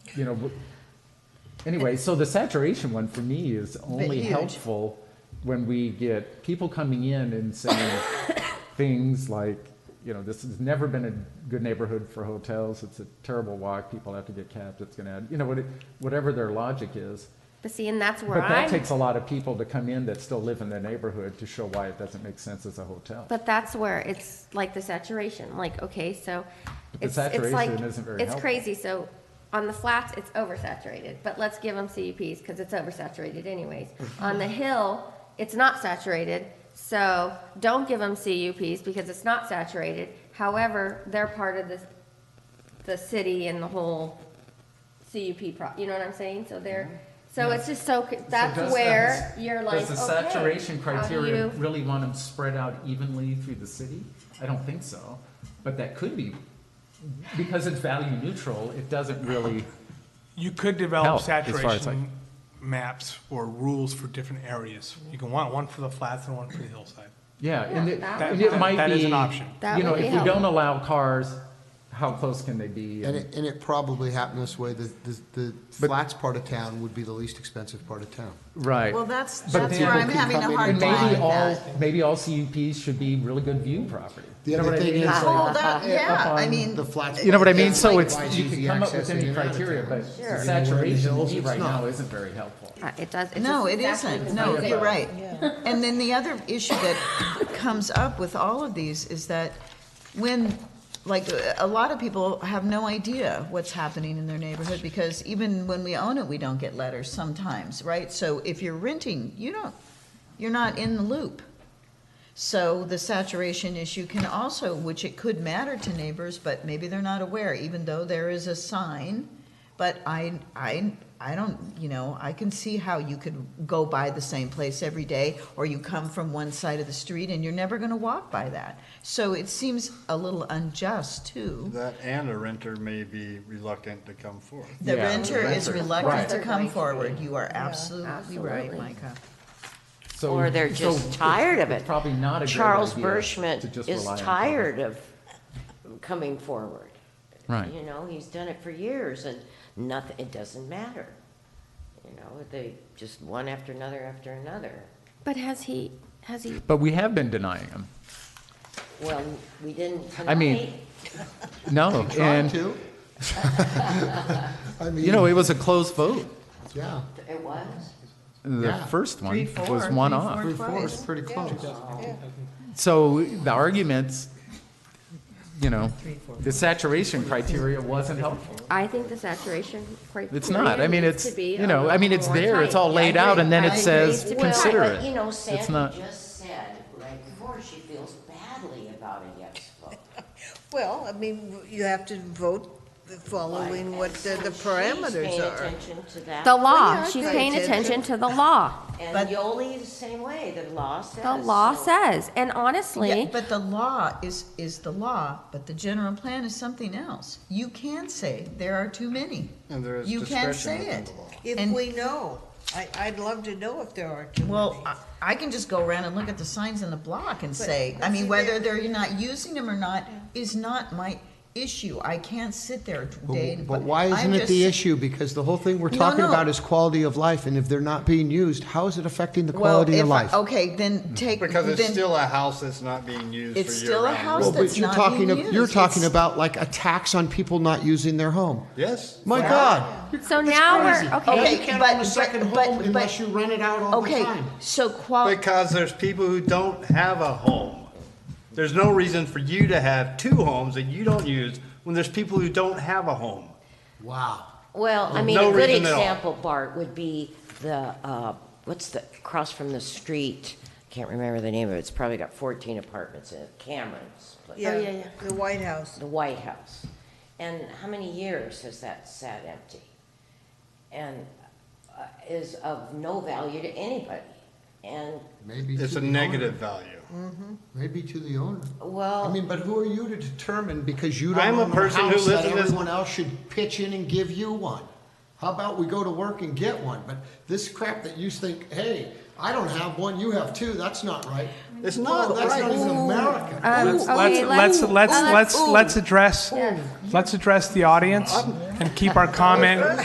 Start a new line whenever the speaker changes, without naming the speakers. you know, w- anyway, so the saturation one for me is only
huge.
helpful when we get people coming in and saying things like, you know, this has never been a good neighborhood for hotels. It's a terrible walk. People have to get cabs. It's going to add, you know, what it- whatever their logic is.
But see, and that's where
But that
I'm,
takes a lot of people to come in that still live in the neighborhood to show why it doesn't make sense as a hotel.
but that's where it's like the saturation, like, okay, so.
the
it's it's like
saturation isn't very
It's
helpful.
crazy, so on the flats, it's oversaturated, but let's give them CUPs, because it's oversaturated anyways. On the hill, it's not saturated, so don't give them CUPs because it's not saturated. However, they're part of the, the city and the whole CUP pro, you know what I'm saying? So they're, so it's just so, c- that's
does
where you're like, okay.
Does the saturation
how do
criteria
you-
really want them spread out evenly through the city? I don't think so, but that could be, because it's value neutral, it doesn't really.
You could
Help,
develop
as far as, like-
saturation maps or rules for different areas. You can want one for the flats and one for the hillside.
Yeah, and it,
Yeah,
and
that-
it might be.
that is an option.
That
You know,
would be
if we don't
helpful.
allow cars, how close can they be?
And it, and it probably happened this way, the, the- the flats part of town would be the least expensive part of town.
Right.
Well, that's,
But
that's
then-
where I'm having a
And
hard
And
time
maybe
with
all,
that.
maybe all CUPs should be really good view property.
The
You know
other
what I
thing
mean?
is,
It's
like,
like-
Well, that, yeah, I mean,
The flats.
You know what I mean?
It's
So
like,
it's,
why is
you
easy
can come up with
accessing
any
it out of
criteria,
town?
but
Sure. You know, we're in the
saturation to
hills,
me
it's
right
not.
now isn't very helpful.
Uh, It does. it's
no,
just
it
exactly
isn't.
the
No,
same.
you're right. And then the other issue that comes up with all of these is that when, like, a lot of people have no idea what's happening in their neighborhood because even when we own it, we don't get letters sometimes, right? So if you're renting, you don't, you're not in the loop. So the saturation issue can also, which it could matter to neighbors, but maybe they're not aware, even though there is a sign. But I, I, I don't, you know, I can see how you could go by the same place every day, or you come from one side of the street and you're never gonna walk by that. So it seems a little unjust too.
That and a renter may be reluctant to come forth.
The
Yeah,
renter is
renter.
reluctant to
Right.
come forward. You are absolutely right,
Absolutely.
Micah.
So-
Or they're
so
just tired of
it's
it.
Probably not a great
Charles
idea to
Bershman
just
is
rely on
tired of coming forward.
Right.
You know, he's done it for years and nothing, it doesn't matter. You know, they, just one after another after another.
But has he, has he
But we have been denying them.
Well, we didn't
I mean,
tonight.
No,
Trying
and,
to. I
you know,
mean,
it was a close vote.
yeah,
It was.
The
Yeah.
first one
Three,
was
four,
one
three,
off.
four.
three, four is pretty close.
So the arguments, you know,
four.
the saturation criteria wasn't helpful.
I think the saturation criteria.
It's not. I mean,
needs to
it's,
be
you know,
a
I mean,
little
it's
more
there, it's
tight.
all
Yeah,
laid
I
out,
agree.
and then
I
it
agree.
says,
Well,
consider
Well, but, you
it.
know,
It's
Sandy
not,
just said right before she feels badly about a yes vote.
Well, I mean, you have to vote following
Like,
what
and
the
so
the
she's
parameters
paying
are.
attention to that.
The law,
yeah,
she's
I
paying
did.
attention to the law.
And
But-
Yoli the same way, the law says.
The law
so.
says, and honestly,
Yeah, but the law is, is the law, but the general plan is something else. You can say, there are too many.
And there is
You can
discretion
say
within
it.
the law.
If
And-
we know, I, I'd love to know if there are too many.
Well, I, I can just go around and look at the signs in the block and say, I
but
mean,
see,
whether
there-
they're not using them or not is not my issue. I can't sit there day.
But but why isn't
I'm
it the
just-
issue? Because the whole thing we're
No,
talking
no.
about is quality of life, and if they're not being used, how is it affecting the
Well,
quality
if
of
I-
life?
Okay, then take,
Because it's
then,
still a house that's not being used for year-round.
It's still a house
Well,
rentals.
that's
but you're
not
talking,
being
ab- you're
used.
talking
It's-
about like a tax on people not using their home.
Yes.
My God.
so now we're,
Okay,
okay,
You can't but- own a but- second home but- but- unless
you rent it out
okay, so qual,
Because there's people who don't have a home. There's no reason for you to have two homes that you don't use when there's people who don't have a home.
Wow.
Well, I mean,
No
a good
reason at all.
example, Bart, would be the, uh, what's the, across from the street, can't remember the name of it, it's probably got 14 apartments in it, Cameron's place.
Oh,
Oh,
yeah, yeah.
The White House.
the White House. And how many years has that sat empty? And uh, is of no value to anybody. And,
Maybe
It's
to
a
the
negative
owner.
value.
Maybe to the owner.
well.
I mean, but who are you to determine because you don't
I'm a
own a
person who
house that
lives in this-
everyone else should pitch in and give you one? How about we go to work and get one? But this crap that you think, hey, I don't have one, you have two, that's not right.
It's not
That's not even
right.
America.
um, okay,
Let's, let's, let's,
uh,
let's,
ooh.
let's address, let's address the audience and keep our comment